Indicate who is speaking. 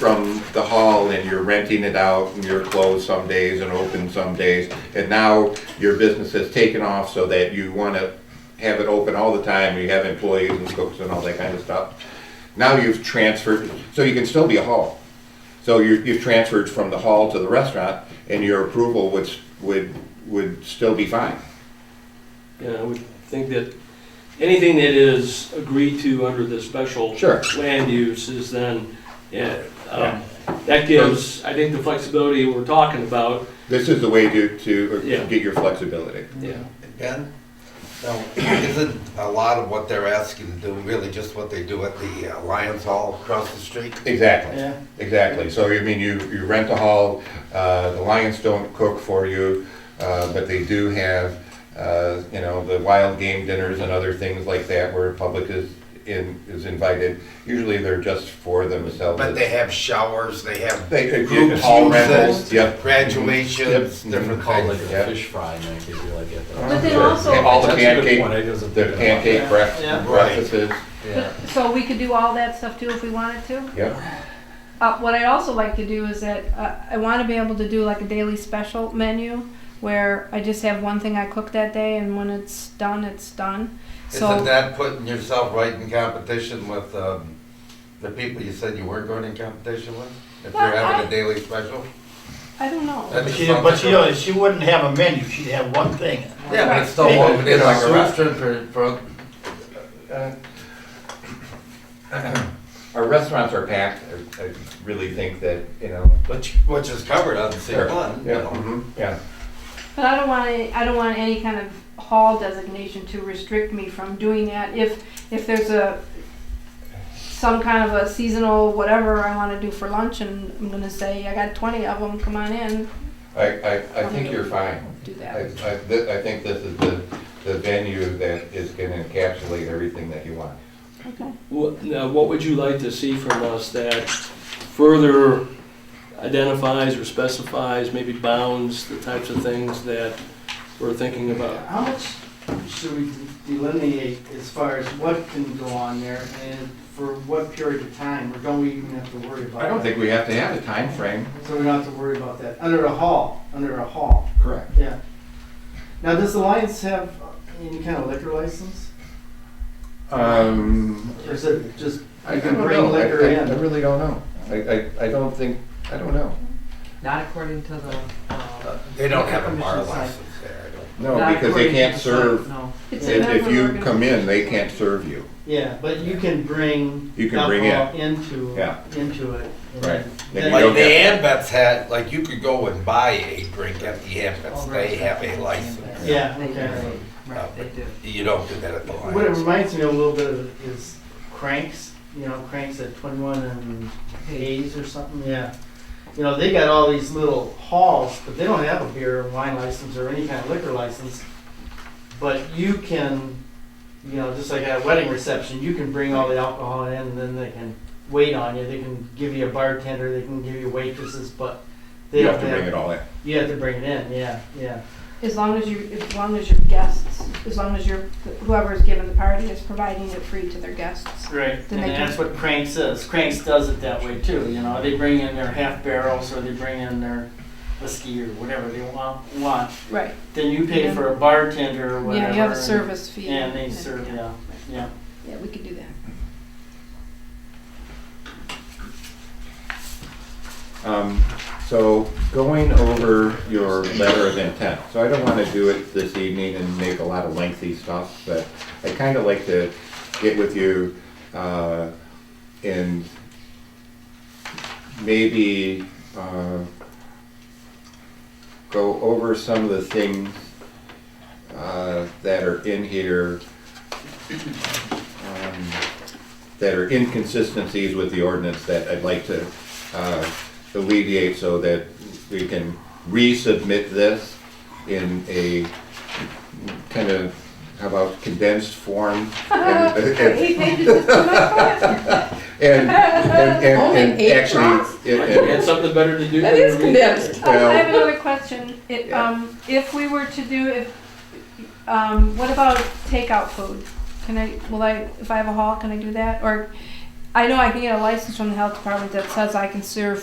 Speaker 1: from the hall and you're renting it out and you're closed some days and open some days. And now your business has taken off so that you want to have it open all the time, you have employees and cooks and all that kind of stuff. Now you've transferred, so you can still be a hall. So you you've transferred from the hall to the restaurant and your approval would, s- would, would still be fine.
Speaker 2: Yeah, I would think that anything that is agreed to under the special
Speaker 1: Sure.
Speaker 2: land use is then, yeah, um, that gives, I think, the flexibility we're talking about,
Speaker 1: This is the way to, to
Speaker 2: Yeah.
Speaker 1: get your flexibility.
Speaker 2: yeah.
Speaker 3: Ben, now, isn't a lot of what they're asking to do really just what they do at the uh, Lions Hall across the street?
Speaker 1: Exactly.
Speaker 4: Yeah.
Speaker 1: Exactly. So you mean you, you rent the hall, uh, the Lions don't cook for you, uh, but they do have, uh, you know, the wild game dinners and other things like that where public is in, is invited. Usually they're just for themselves.
Speaker 3: But they have showers, they have
Speaker 1: They, they-
Speaker 3: group
Speaker 1: hall rentals,
Speaker 3: uses,
Speaker 1: yep.
Speaker 3: graduations,
Speaker 1: Yep.
Speaker 3: different
Speaker 5: Call like
Speaker 3: things.
Speaker 5: a
Speaker 1: Yeah.
Speaker 5: fish fry night, if you like it.
Speaker 6: But then
Speaker 1: Sure.
Speaker 6: also-
Speaker 1: And All the
Speaker 5: That's a good point,
Speaker 1: pancake,
Speaker 5: I wasn't
Speaker 1: the
Speaker 5: thinking about
Speaker 1: pancake breakfast,
Speaker 4: Yeah.
Speaker 3: Right.
Speaker 1: breakfasts,
Speaker 5: Yeah.
Speaker 6: So we could do all that stuff too if we wanted to?
Speaker 1: yep.
Speaker 6: Uh, what I also like to do is that uh, I want to be able to do like a daily special menu where I just have one thing I cook that day, and when it's done, it's done.
Speaker 3: Isn't
Speaker 6: So
Speaker 3: that putting yourself right in competition with um, the people you said you weren't going in competition with? If you're
Speaker 6: Well,
Speaker 3: having
Speaker 6: I-
Speaker 3: a daily special?
Speaker 6: I don't know.
Speaker 3: That
Speaker 4: But
Speaker 3: just
Speaker 4: she,
Speaker 3: sounds
Speaker 4: but
Speaker 3: like
Speaker 4: she,
Speaker 3: a-
Speaker 4: don't- she wouldn't have a menu, she'd have one thing.
Speaker 3: Yeah, but it's still
Speaker 4: Right.
Speaker 3: open, it's like a
Speaker 1: Right.
Speaker 3: restaurant for, for,
Speaker 1: Uh, Our restaurants are packed. I, I really think that, you know.
Speaker 3: which, which is covered on C
Speaker 1: Sure.
Speaker 3: one, you
Speaker 1: Yeah,
Speaker 3: know.
Speaker 1: mhm, yeah.
Speaker 6: But I don't want any, I don't want any kind of hall designation to restrict me from doing that. If if there's a some kind of a seasonal whatever I want to do for lunch, and I'm gonna say I got 20 of them. Come on in,
Speaker 1: I, I, I think you're fine.
Speaker 6: do
Speaker 1: I, I,
Speaker 6: that.
Speaker 1: thi- I think this is the, the venue that is gonna encapsulate everything that you want.
Speaker 6: Okay.
Speaker 2: What, now, what would you like to see from us that further identifies or specifies, maybe bounds the types of things that we're thinking about?
Speaker 4: How much should we delineate as far as what can go on there and for what period of time, or don't we even have to worry about
Speaker 1: I don't think we have to have a time frame.
Speaker 4: So we don't have to worry about that, under a hall, under a hall,
Speaker 1: Correct.
Speaker 4: yeah. Now, does the Lions have any kind of liquor license?
Speaker 1: Um,
Speaker 4: Or is it just,
Speaker 1: I I
Speaker 4: You can
Speaker 1: don't
Speaker 4: bring
Speaker 1: know. I-
Speaker 4: liquor
Speaker 1: I-
Speaker 4: in.
Speaker 1: I really don't know. I, I, I don't think, I don't know.
Speaker 7: Not according to the, uh,
Speaker 3: They don't have a bar
Speaker 4: Commission's like-
Speaker 3: license there, I don't
Speaker 1: No,
Speaker 7: not
Speaker 1: because they
Speaker 7: according to
Speaker 1: can't
Speaker 7: the
Speaker 1: serve,
Speaker 7: site, No.
Speaker 6: It's a
Speaker 1: if, if
Speaker 6: member
Speaker 1: you
Speaker 6: organization.
Speaker 1: come in, they can't serve you.
Speaker 4: yeah, but you can bring
Speaker 1: You can bring in.
Speaker 4: alcohol into,
Speaker 1: Yeah.
Speaker 4: into it. and
Speaker 1: Right. Then
Speaker 4: then-
Speaker 1: you
Speaker 3: Like
Speaker 1: don't
Speaker 3: the
Speaker 1: get-
Speaker 3: Ambets had, like you could go and buy a drink at the Ambets, they have a license.
Speaker 4: Yeah,
Speaker 7: They do,
Speaker 4: okay.
Speaker 7: Right, they do.
Speaker 3: You don't do that at the
Speaker 4: What it
Speaker 3: Lions.
Speaker 4: reminds me a little bit of is Cranks, you know, Cranks at 21 and
Speaker 7: Hey,
Speaker 4: Hayes or something, yeah. You know, they got all these little halls, but they don't have a beer or wine license or any kind of liquor license. But you can, you know, just like at a wedding reception, you can bring all the alcohol in and then they can wait on you. They can give you a bartender, they can give you waitresses, but they
Speaker 1: You
Speaker 4: don't
Speaker 1: have to bring it all in.
Speaker 4: You have to bring it in, yeah, yeah.
Speaker 6: As long as you, as long as your guests, as long as your, whoever's giving the party is providing it free to their guests.
Speaker 4: Right,
Speaker 6: Then
Speaker 4: and
Speaker 6: they can-
Speaker 4: that's what Cranks is. Cranks does it that way too, you know, they bring in their half barrels or they bring in their whiskey or whatever they want, want.
Speaker 6: Right,
Speaker 4: Then you pay for a bartender or whatever.
Speaker 6: yeah, you have a
Speaker 4: and-
Speaker 6: service fee.
Speaker 4: And they serve, yeah, yeah.
Speaker 6: Yeah, we could do that.
Speaker 1: Um, So going over your letter of intent, so I don't want to do it this evening and make a lot of lengthy stuff, but I kind of like to get with you uh, and maybe uh, go over some of the things uh, that are in here um, that are inconsistencies with the ordinance that I'd like to uh, alleviate so that we can resubmit this in a kind of, how about condensed form? And- and-
Speaker 6: Eight pages is too much for us.
Speaker 1: and, and, and,
Speaker 8: Only
Speaker 1: and
Speaker 8: eight
Speaker 1: actually,
Speaker 2: I
Speaker 1: it-
Speaker 2: had
Speaker 1: it-
Speaker 2: something better to do.
Speaker 8: That
Speaker 2: than
Speaker 8: is
Speaker 2: read
Speaker 8: condensed.
Speaker 6: I
Speaker 1: Well-
Speaker 6: have another question. It,
Speaker 1: Yeah.
Speaker 6: um, if we were to do, if, um, what about takeout food? Can I, will I, if I have a hall, can I do that? Or I know I can get a license from the health department that says I can serve